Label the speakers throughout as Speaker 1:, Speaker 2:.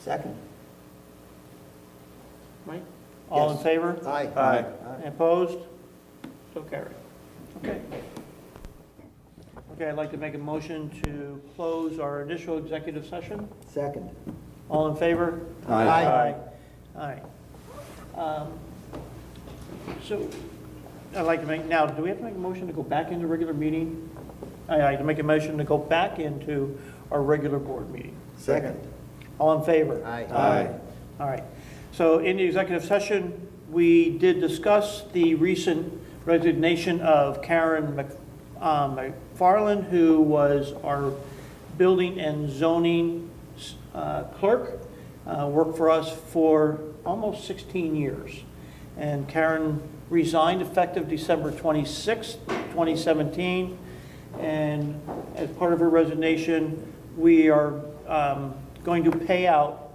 Speaker 1: Second?
Speaker 2: Mike? All in
Speaker 1: Yes.
Speaker 2: favor?
Speaker 1: Aye.
Speaker 2: Aye. Opposed? So carried. Okay. Okay, I'd like to make a motion to close our initial executive session.
Speaker 1: Second?
Speaker 2: All in favor?
Speaker 1: Aye.
Speaker 2: Aye. Aye. Um, So, I'd like to make, now, do we have to make a motion to go back into regular meeting? I'd like to make a motion to go back into our regular board meeting.
Speaker 1: Second?
Speaker 2: All in favor?
Speaker 1: Aye.
Speaker 3: Aye.
Speaker 2: All right. So in the executive session, we did discuss the recent resignation of Karen Mc- uh, McFarland, who was our building and zoning uh, clerk, uh, worked for us for almost 16 years. And Karen resigned effective December 26th, 2017. And as part of her resignation, we are um, going to pay out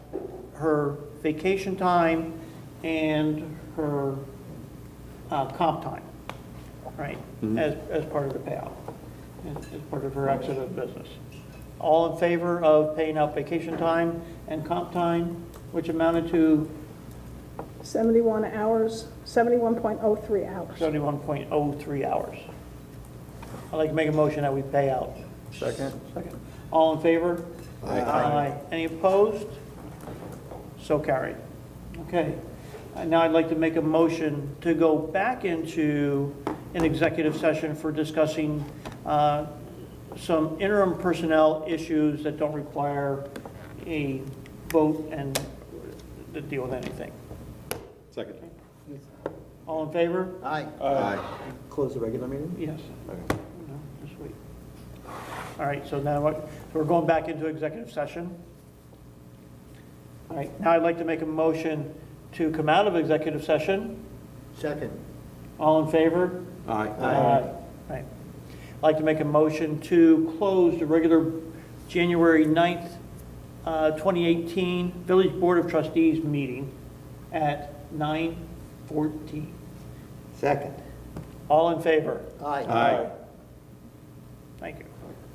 Speaker 2: her vacation time and her uh, comp time, right? As, as part of the payout, as as part of her exit of business. All in favor of paying out vacation time and comp time, which amounted to
Speaker 4: 71 hours, 71.03 hours.
Speaker 2: 71.03 hours. I'd like to make a motion that we pay out.
Speaker 3: Second?
Speaker 2: Second. All in favor?
Speaker 3: Aye.
Speaker 2: Any opposed? So carried. Okay. Uh, Now I'd like to make a motion to go back into an executive session for discussing uh, some interim personnel issues that don't require a vote and to deal with anything.
Speaker 3: Second.
Speaker 2: All in favor?
Speaker 1: Aye.
Speaker 3: Aye.
Speaker 1: Close the regular meeting?
Speaker 2: Yes. No, this week. All right, so now, what- so we're going back into executive session. All right, now I'd like to make a motion to come out of executive session.
Speaker 1: Second?
Speaker 2: All in favor?
Speaker 3: Aye.
Speaker 2: Right. I'd like to make a motion to close the regular January 9th, uh, 2018 Village Board of Trustees meeting at 9:14.
Speaker 1: Second?
Speaker 2: All in favor?
Speaker 1: Aye.
Speaker 3: Aye.
Speaker 2: Thank you.